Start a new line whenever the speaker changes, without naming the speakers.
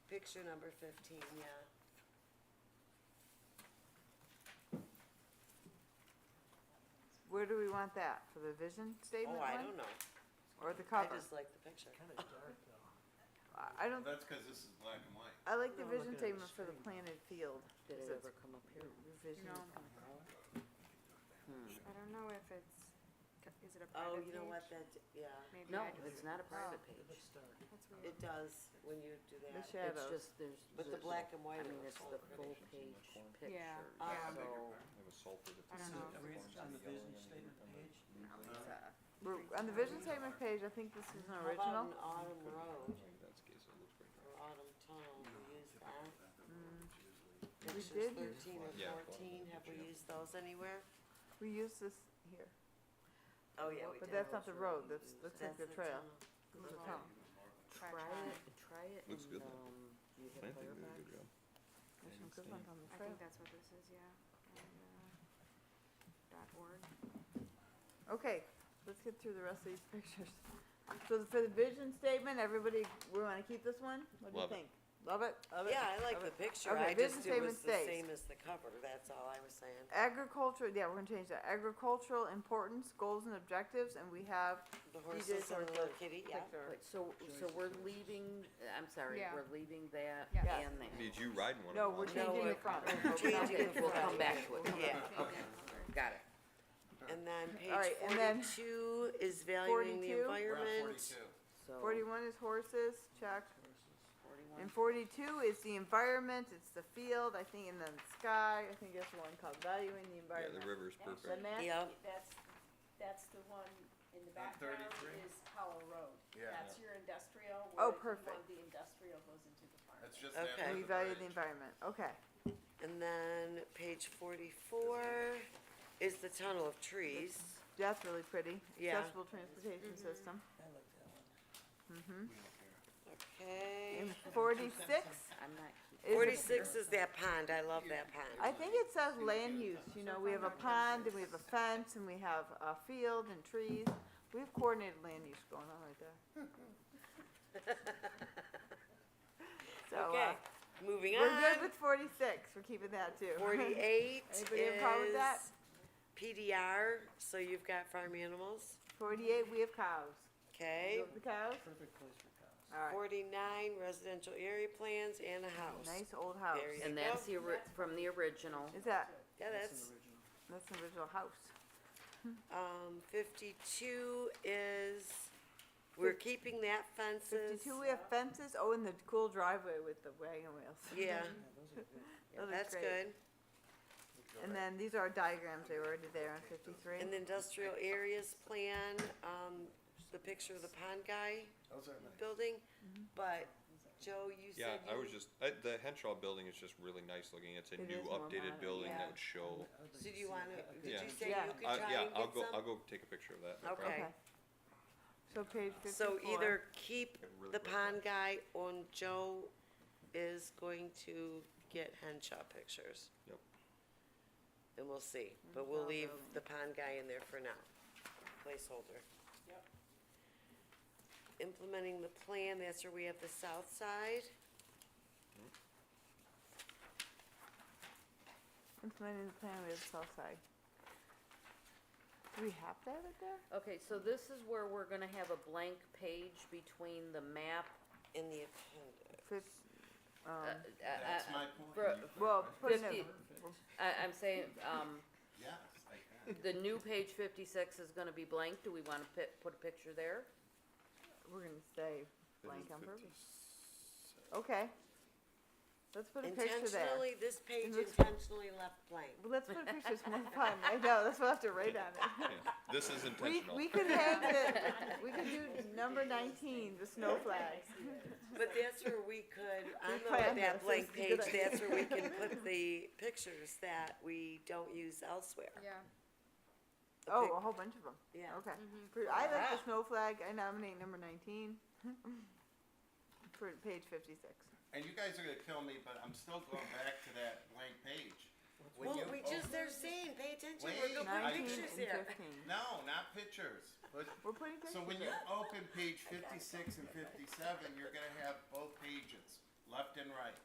picture number fifteen, yeah.
Where do we want that, for the vision statement
Oh,
one?
I don't know.
Or the
I
cover?
just like the picture.
Kinda dark though.
I- I don't,
That's because this is black and white.
I like the
No, I'm
vision
looking at the
statement for the
screen.
planted field.
Did it
So it's
ever come up here?
Revision.
No.
Hmm.
I don't know if it's, is it a
Oh,
private page?
you know what, that, yeah,
Maybe
No,
I just,
it's not a private
Oh, It
page.
looks dark.
that's weird.
it does when you do
The
that.
It's
shadows.
just, there's.
But the black and
I
white.
mean,
are
it's
so
the
pretty. Um,
full
Visions
page
in the corner.
picture.
Yeah.
Yeah.
So,
There was sulfur that
I
they
don't
said
know.
that
Read
orange
on
and
the
yellow
vision
and the
statement
green
page.
and the blue.
uh,
We're- On the vision statement page, I think this is an
How about
original.
an autumn road
Sorry, that's the case, it looks pretty
or autumn tunnel, we use that?
We
Pictures
did use
thirteen or
Yeah.
fourteen, have we used those anywhere?
We use this here.
Oh, yeah, we did.
But that's not the road, that's, looks like
That's
the trail.
tunnel.
It's a
Well,
tunnel.
Try
Try
trying.
it, try it
Looks
and,
good, though.
um, you hit
Planting did a
Firefox.
good job.
There's some
It's
good
the-
ones on the
I
trail.
think that's what this is, yeah. And, uh, Dot org.
Okay, let's get through the rest of these pictures. So the- for the vision statement, everybody, we wanna keep this one? What do you
Love it.
think? Love it? Love it?
Yeah, I like
Love
the
it.
picture, I
Okay,
just, it
vision
was
statement
the
stays.
same as the cover, that's all I was saying.
Agriculture, yeah, we're gonna change that. Agricultural importance, goals and objectives, and we have
The
did
horses and the
horse
little kitty, yeah.
picture.
Wait, so, so we're leaving, I'm sorry,
Yeah.
we're leaving that
Yeah.
Yeah.
and that.
Did you ride in one of
No,
them?
we're
No,
Lonnie?
changing the
we're-
front.
we're
We'll go back
changing the
to it.
We'll
front.
come back to it.
Yeah,
Got it.
and then page
right, and then-
forty-two is valuing the
42? We're on
We're on
environment.
forty-two.
So.
Forty-one is horses, check.
Forty-one.
And forty-two is the environment, it's the field, I think, and then the sky, I think that's the one called valuing the
Yeah,
environment.
the river's
The
perfect.
map,
Yep,
That's, that's the one in the
On
background
33?
is Powell Road.
Yeah.
That's your industrial,
Oh,
where if you
perfect.
want the industrial goes into the farm.
It's just
Okay.
after
and we
the
value the
bridge.
environment, okay.
and then page forty-four is the tunnel of trees.
That's really pretty.
Yeah. Mm-hmm.
Accessible transportation system.
I like that one.
Mm-hmm.
Okay,
And forty-six
I'm not keeping.
forty-six is that pond, I love that pond.
I think it says land use, you know, we have a pond and we have a fence and we have a field and trees. We have coordinated land use going on right there. So, uh,
Okay, moving
we're
on,
good with forty-six. We're keeping that too.
forty-eight
Anybody have a problem with that?
is PDR, so you've got farm animals,
Forty-eight, we have cows.
okay?
You have the cows?
Perfect place for cows.
All right,
Forty-nine residential area plans and a house.
nice old house.
Very-
And that's the, ori- from the original.
Is that,
Yeah,
That's
that's,
an original.
that's an original house.
um, fifty-two is, we're keeping that fences.
Fifty-two, we have fences. Oh, and the cool driveway with the wagon wheels.
uh, Yeah,
Yeah, those are good.
Those are
that's
great.
good.
And then these are diagrams, they were already there on fifty-three.
And the industrial areas plan, um, the picture of the pond guy
Those are nice.
building,
Mm-hmm.
but Joe, you
Yeah,
said
I
you,
was just, I, the Henshaw building is just really nice looking. It's a
It
new
is more modern.
updated building
Yeah.
that would show.
I would like
so do
to
you
see
wanna,
that. Okay.
did
Yeah.
you say
Yeah.
you could
I,
try
yeah,
and
I'll
get
go, I'll
some?
go take a picture of that. no
Okay.
problem.
Okay. So
So
page fifty-four.
either keep
It really
the
breaks
pond guy on Joe is going to get Henshaw pictures.
Yep.
And we'll see, but we'll
Henshaw
leave
building.
the pond guy in there for now, placeholder.
Yep.
Implementing the plan, that's where we have the south side.
Implementing the plan with the south side. Do we have to have it there?
Okay, so this is where we're gonna have a blank page between the map,
in the appendix.
Fif-
uh,
um,
That's
uh, uh,
my point.
bro-
You-
well, put in
fifty,
a,
I, I'm saying, um,
Yes, I can.
the new page fifty-six is gonna be blank, do we wanna pi- put a picture there?
we're gonna stay
It
blank
is
on
50.
purpose. Okay. Let's put a picture there.
Intentionally, this page
looks-
intentionally left blank.
Well, Let's put a picture, it's more fun. I know, that's what I have to write on it.
Yeah, This is
We,
intentional.
we could hang the, we could do number nineteen, the snow flags.
But that's where we could, on
We
the-
planned
that
this,
blank
it's a good
page,
idea.
that's where we can put the pictures that we don't use elsewhere.
Yeah.
The
Oh,
pic-
a whole bunch of them.
Yeah. Mm-hmm.
Okay. Pre- I like the
Yeah.
snow flag. I nominate number nineteen. For page fifty-six.
And you guys are gonna kill me, but I'm still going back to that blank page. When
Well,
you
we
open-
just, they're saying, pay attention,
Wait,
we're gonna put
I-
Nineteen and
pictures here.
fifteen.
No, not pictures. But,
We're putting pictures.
so when you
there.
open page fifty-six and fifty-seven, you're gonna have both pages, left